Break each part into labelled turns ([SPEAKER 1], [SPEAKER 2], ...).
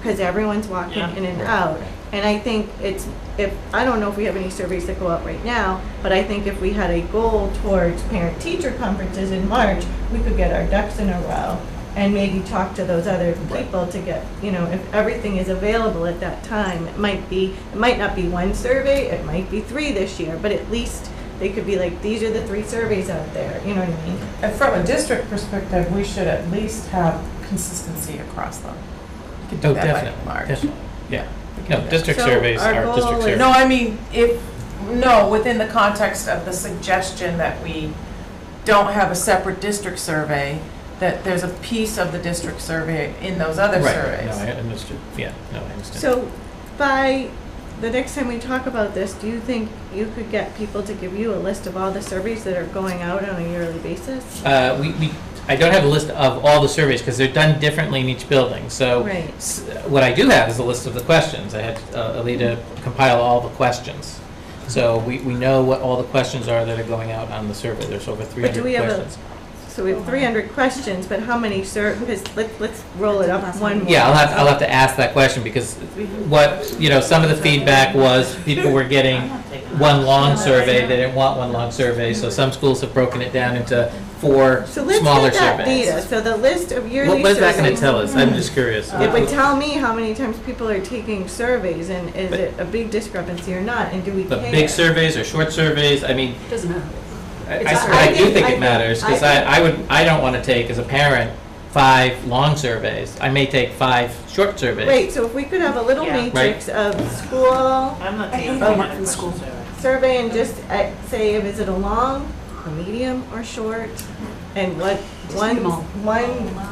[SPEAKER 1] because everyone's walking
[SPEAKER 2] Yeah.
[SPEAKER 1] in and out. And I think it's, if, I don't know if we have any surveys that go out right now, but I think if we had a goal towards parent-teacher conferences in March, we could get our ducks in a row and maybe talk to those other
[SPEAKER 2] Right.
[SPEAKER 1] people to get, you know, if everything is available at that time. It might be, it might not be one survey, it might be three this year, but at least they could be like, these are the three surveys out there, you know what I mean?
[SPEAKER 3] And from a district perspective, we should at least have consistency across them. You could do
[SPEAKER 2] Oh,
[SPEAKER 3] that by
[SPEAKER 2] definitely,
[SPEAKER 3] March.
[SPEAKER 2] definitely. Yeah,
[SPEAKER 3] We could do
[SPEAKER 2] no,
[SPEAKER 3] that.
[SPEAKER 2] district
[SPEAKER 1] So
[SPEAKER 2] surveys
[SPEAKER 1] our
[SPEAKER 2] are district
[SPEAKER 1] goal is-
[SPEAKER 2] surveys.
[SPEAKER 3] No, I mean, if, no, within the context of the suggestion that we don't have a separate district survey, that there's a piece of the district survey in those other
[SPEAKER 2] Right, no, I
[SPEAKER 3] surveys.
[SPEAKER 2] understood, yeah, no, I understand.
[SPEAKER 1] So by the next time we talk about this, do you think you could get people to give you a list of all the surveys that are going out on a yearly basis?
[SPEAKER 2] Uh, we, we, I don't have a list of all the surveys because they're done differently in each building. So
[SPEAKER 1] Right.
[SPEAKER 2] s- what I do have is a list of the questions. I had uh, Alita compile all the questions. So we, we know what all the questions are that are going out on the survey. There's over
[SPEAKER 1] But do
[SPEAKER 2] 300
[SPEAKER 1] we have a-
[SPEAKER 2] questions.
[SPEAKER 1] So we have three hundred questions, but how many sur, because let's, let's roll it up one more.
[SPEAKER 2] Yeah, I'll have, I'll have to ask that question because what, you know, some of the feedback was people were getting one long survey. They didn't want one long survey. So some schools have broken it down into four
[SPEAKER 1] So let's
[SPEAKER 2] smaller
[SPEAKER 1] get that
[SPEAKER 2] surveys.
[SPEAKER 1] data, so the list of
[SPEAKER 2] What
[SPEAKER 1] yearly surveys.
[SPEAKER 2] what is that going to tell us? I'm just curious.
[SPEAKER 1] It would tell me how many times people are taking surveys and is it a big discrepancy or not, and do we care?
[SPEAKER 2] But big surveys or short surveys, I mean,
[SPEAKER 4] Doesn't matter.
[SPEAKER 2] I,
[SPEAKER 4] It's
[SPEAKER 2] I-
[SPEAKER 4] not-
[SPEAKER 2] I do
[SPEAKER 1] I
[SPEAKER 2] think
[SPEAKER 1] think-
[SPEAKER 2] it matters, because
[SPEAKER 1] I
[SPEAKER 2] I, I would, I don't want to take, as a parent, five long surveys. I may take five short surveys.
[SPEAKER 1] Wait, so if we could have a little
[SPEAKER 5] Yeah.
[SPEAKER 2] Right.
[SPEAKER 1] matrix of school,
[SPEAKER 5] I'm not
[SPEAKER 4] I
[SPEAKER 5] taking
[SPEAKER 4] hate
[SPEAKER 5] that
[SPEAKER 4] homework in
[SPEAKER 5] question,
[SPEAKER 4] school.
[SPEAKER 5] so-
[SPEAKER 1] survey and just uh, say, is it a long, a medium, or short? And what,
[SPEAKER 4] Just
[SPEAKER 1] one,
[SPEAKER 4] need 'em all.
[SPEAKER 1] one,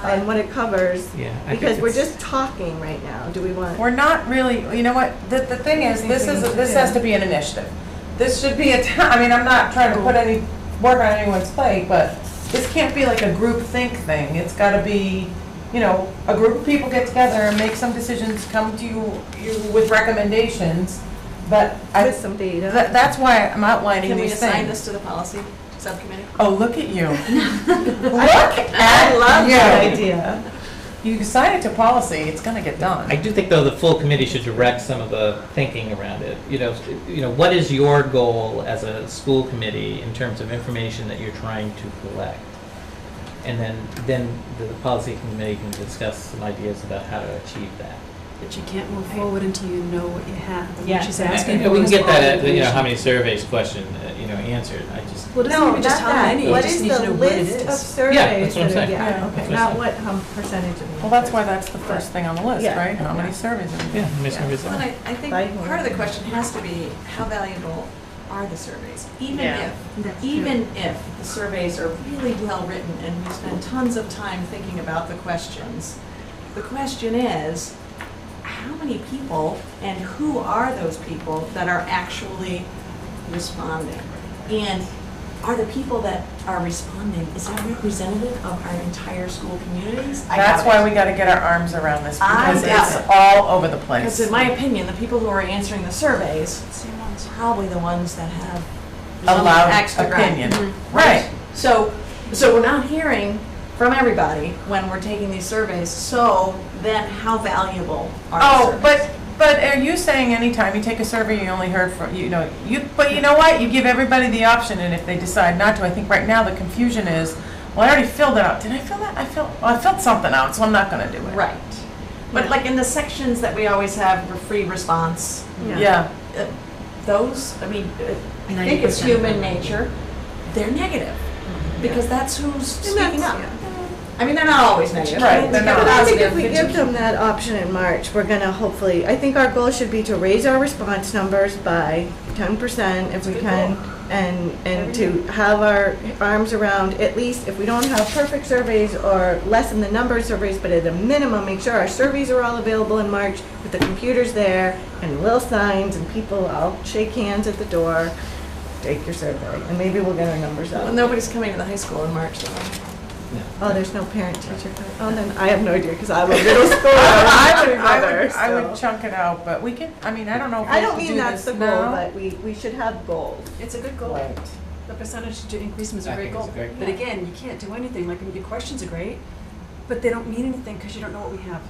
[SPEAKER 1] and what it covers,
[SPEAKER 2] Yeah. I think
[SPEAKER 1] because we're
[SPEAKER 2] it's-
[SPEAKER 1] just talking right now, do we want?
[SPEAKER 3] We're not really, you know what, the, the thing is, this is, this has to be an initiative. This should be a ti- I mean, I'm not trying to put any work on anyone's plate, but this can't be like a group think thing. It's gotta be, you know, a group of people get together and make some decisions, come to you, you with recommendations, but I,
[SPEAKER 1] With some data,
[SPEAKER 3] That, that's why I'm outlining
[SPEAKER 4] Can we
[SPEAKER 3] these
[SPEAKER 4] assign
[SPEAKER 3] things.
[SPEAKER 4] this to the policy subcommittee?
[SPEAKER 3] Oh, look at you. Look at
[SPEAKER 1] I love that
[SPEAKER 3] you.
[SPEAKER 1] idea,
[SPEAKER 3] You assign it to policy, it's gonna get
[SPEAKER 2] I
[SPEAKER 3] done.
[SPEAKER 2] do think, though, the full committee should direct some of the thinking around it. You know, s- you know, what is your goal as a school committee in terms of information that you're trying to collect? And then, then the policy committee can discuss some ideas about how to achieve that.
[SPEAKER 4] But you can't move forward until you know what you have. What
[SPEAKER 1] Yeah.
[SPEAKER 4] she's
[SPEAKER 2] And-
[SPEAKER 4] asking
[SPEAKER 2] and
[SPEAKER 4] for
[SPEAKER 2] We can
[SPEAKER 4] is
[SPEAKER 2] get
[SPEAKER 4] all
[SPEAKER 2] that, at, you know,
[SPEAKER 4] information.
[SPEAKER 2] how many surveys question, uh, you know, answered. I just,
[SPEAKER 4] Well, it doesn't
[SPEAKER 1] no,
[SPEAKER 4] even
[SPEAKER 1] not
[SPEAKER 4] just how
[SPEAKER 1] that,
[SPEAKER 4] many, you
[SPEAKER 1] what
[SPEAKER 4] just
[SPEAKER 1] is
[SPEAKER 4] need to
[SPEAKER 1] the
[SPEAKER 4] know what it is.
[SPEAKER 1] list of
[SPEAKER 2] Yeah,
[SPEAKER 1] surveys
[SPEAKER 2] that's what I'm
[SPEAKER 1] that are,
[SPEAKER 2] saying.
[SPEAKER 3] Yeah,
[SPEAKER 1] yeah, okay,
[SPEAKER 2] that's what
[SPEAKER 1] not
[SPEAKER 2] I'm
[SPEAKER 1] what, hum percentage of them.
[SPEAKER 3] Well, that's why that's the first thing on the list,
[SPEAKER 1] Yeah.
[SPEAKER 3] right? How many surveys are we
[SPEAKER 2] yeah,
[SPEAKER 3] doing?
[SPEAKER 2] how many surveys?
[SPEAKER 4] Well, and I, I think
[SPEAKER 1] By
[SPEAKER 4] part of the
[SPEAKER 1] whom?
[SPEAKER 4] question has to be, how valuable are the surveys? Even
[SPEAKER 5] Yeah.
[SPEAKER 4] if,
[SPEAKER 1] That's true.
[SPEAKER 4] even if the surveys are really well-written and we spend tons of time thinking about the questions, the question is, how many people and who are those people that are actually responding? And are the people that are responding, is that representative of our entire school communities? I
[SPEAKER 3] That's
[SPEAKER 4] doubt it.
[SPEAKER 3] why we gotta get our arms around this,
[SPEAKER 4] I
[SPEAKER 3] because
[SPEAKER 4] doubt
[SPEAKER 3] it's
[SPEAKER 4] it.
[SPEAKER 3] all over the
[SPEAKER 4] Because
[SPEAKER 3] place.
[SPEAKER 4] in my opinion, the people who are answering the surveys, are probably the ones that have.
[SPEAKER 3] A loud
[SPEAKER 4] axe to grind.
[SPEAKER 3] opinion,
[SPEAKER 4] Mm-hmm.
[SPEAKER 3] right.
[SPEAKER 4] So, so we're not hearing from everybody when we're taking these surveys, so then how valuable are the
[SPEAKER 3] Oh,
[SPEAKER 4] surveys?
[SPEAKER 3] but, but are you saying anytime you take a survey, you only heard from, you know, you, but you know what? You give everybody the option, and if they decide not to, I think right now the confusion is, well, I already filled it out. Did I fill that? I filled, well, I filled something out, so I'm not gonna do it.
[SPEAKER 4] Right. But like in the sections that we always have, for free response,
[SPEAKER 3] Yeah,
[SPEAKER 4] uh, those, I mean, uh, I think it's human nature, they're negative. Because that's who's speaking up. I mean, they're not always negative.
[SPEAKER 3] Right, they're
[SPEAKER 4] They're
[SPEAKER 3] not.
[SPEAKER 1] But I think if we
[SPEAKER 4] positive.
[SPEAKER 1] give them that option in March, we're gonna hopefully, I think our goal should be to raise our response numbers by ten percent if we can. And, and to have our arms around, at least if we don't have perfect surveys or lessen the number of surveys, but at a minimum, make sure our surveys are all available in March with the computers there and little signs and people, I'll shake hands at the door, take your survey, and maybe we'll get our numbers up.
[SPEAKER 4] Well, nobody's coming to the high school in March, though.
[SPEAKER 1] Oh, there's no parent teacher. Oh, then I have no idea because I'm a middle schooler. I would
[SPEAKER 3] I would,
[SPEAKER 1] remember,
[SPEAKER 3] I would
[SPEAKER 1] so.
[SPEAKER 3] chunk it out, but we can, I mean, I don't know if we
[SPEAKER 1] I
[SPEAKER 3] have
[SPEAKER 1] don't
[SPEAKER 3] to do
[SPEAKER 1] mean that's
[SPEAKER 3] this
[SPEAKER 1] the goal,
[SPEAKER 3] now.
[SPEAKER 1] but we, we should have goals.
[SPEAKER 4] It's a good goal.
[SPEAKER 3] Right.
[SPEAKER 4] The percentage to increase is
[SPEAKER 2] I think it's a great
[SPEAKER 6] But again, you can't do anything, like, your questions are great, but they don't mean anything because you don't know what we have.